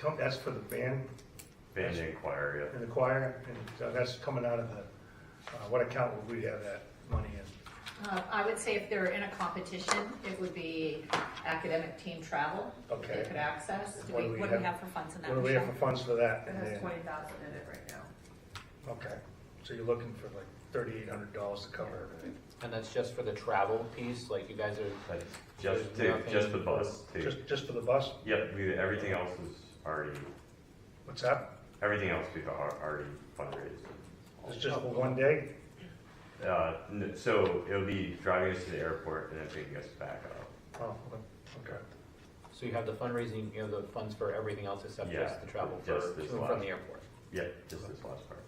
come, that's for the band Band inquiry, yeah. and the choir, and so that's coming out of the, uh, what account would we have that money in? Uh, I would say if they're in a competition, it would be academic team travel. that They Okay. could access. Do What we, what do we have for funds in that? What do we have for Michelle? funds for that? It And has then- twenty thousand in it right now. Okay, so you're looking for like thirty-eight hundred dollars to cover everything, And that's just for the travel piece, like you guys are, That's just, There's to- just nothing- the bus, too. just, just for the bus, Yep, we, everything else is already, what's that? everything else we've al- already fundraised. It's just for one day? Uh, n- so it'll be driving us to the airport and then picking us back up. Oh, okay, so you have the fundraising, you have the funds for everything else except Yeah, just the travel for, just to and this from last. the airport. Yep, just this last part.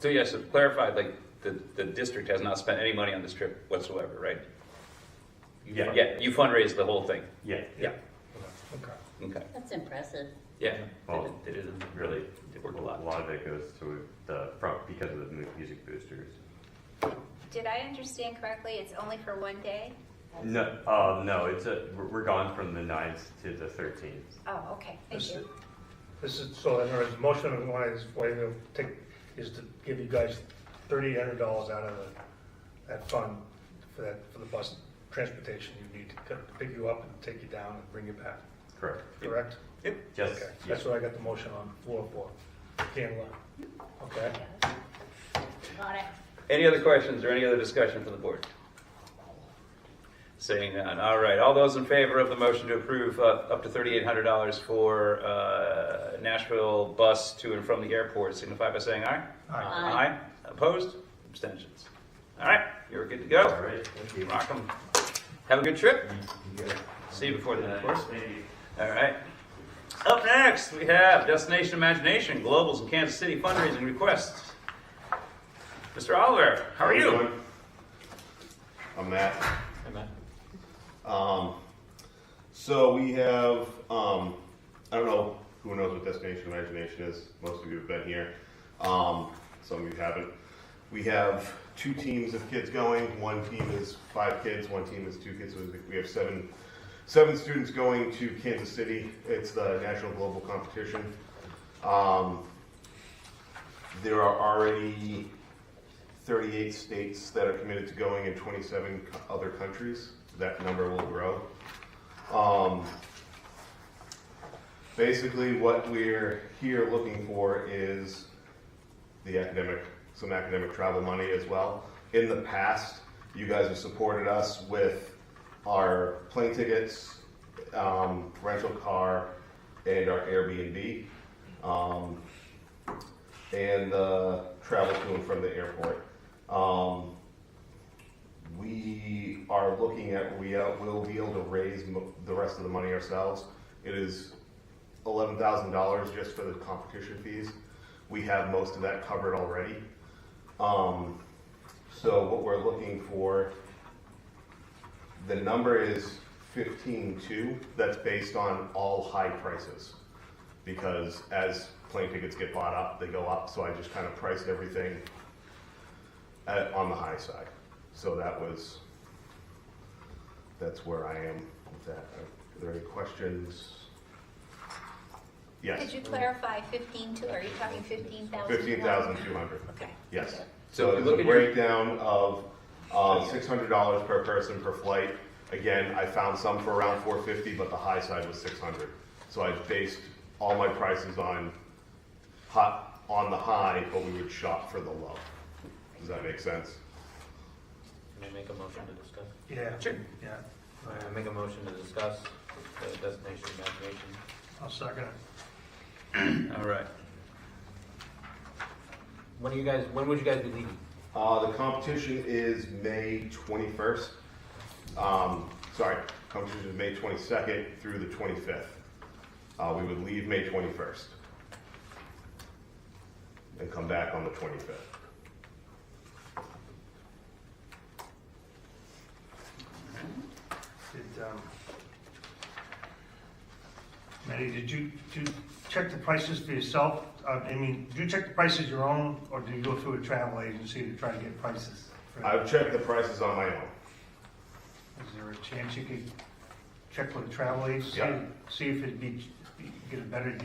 So yes, to clarify, like, the, the district has not spent any money on this trip whatsoever, right? You Yeah. fund- Yeah, you fundraised the whole thing. Yeah, Yeah. okay. Okay, That's impressive. yeah. Well, They did it really, really, they worked a a lot. lot of it goes to the front because of the mu- music boosters. Did I understand correctly? It's only for one day? No, uh, no, it's a, we're- we're gone from the 9th to the thirteenth. Oh, okay, thank This is, you. this is, so in other words, the motion of one is, way to take, is to give you guys thirty-eight hundred dollars out of the, that fund for that, for the bus transportation you need to pick- pick you up and take you down and bring you back, Correct. correct? Yep. Just, Okay, yeah. that's what I got the motion on the floor for, can okay? Got it. Any other questions or any other discussion from the board? Saying none, all right, all those in favor of the motion to approve uh, up to thirty-eight hundred dollars for uh, Nashville bus to and from the airport, signify by saying aye. Uh, Aye. Opposed, abstentions. All right, you're good to go. All right, thank you. Rock 'em. Have a good trip. You guys- See you before then, of course. Thank you. All right. Up next, we have Destination Imagination Globals and Kansas City fundraising requests. Mr. Oliver, how are you? doing? I'm Matt. Hey, Matt. Um, so we have, um, I don't know who knows what Destination Imagination is. Most of you have been here. Um, some of you haven't. We have two teams of kids going. One team is five kids. One team is two kids. So we have seven, seven students going to Kansas City. It's the national global competition. Um, there are already 38 states that are committed to going in 27 co- other countries. That number will grow. Um, basically, what we're here looking for is the academic, some academic travel money as well. In the past, you guys have supported us with our plane tickets, um, rental car, and our Airbnb. Um, and uh, travel to and from the airport. Um, we are looking at we uh, will be able to raise mo- the rest of the money ourselves. It is eleven thousand dollars just for the competition fees. We have most of that covered already. Um, so what we're looking for, the number is fifteen two. That's based on all high prices because as plane tickets get bought up, they go up. So I just kind of priced everything at, on the high side. So that was, that's where I am with that. Are there any questions? Could Yes, you clarify fifteen two, are you talking fifteen thousand? fifteen thousand two hundred. Okay. Yes. So if So you there's look a at your- Oh, breakdown of uh, six hundred dollars per person per flight. Again, I found some for around four fifty, but the high side was six hundred. So I based all my prices on hot, on the high, but we would shop for the low. Does that make sense? Can I make a motion to discuss? Yeah. Sure. Yeah, All right, I make a motion to discuss the destination imagination. I'll second it. All right. When are you guys, when would you guys be leaving? Uh, the competition is May twenty-first. Um, sorry, competition is May twenty-second through the twenty-fifth. Uh, we would leave May twenty-first. And come back on the twenty-fifth. Did, um, Maddie, did you, did you check the prices for yourself? Uh, I mean, do you check the prices your own, or do you go through a travel agency to try to get prices? for- I've checked the prices on my own. Is there a chance you could check with a travel agency? Yeah. See if it'd be, get a better deal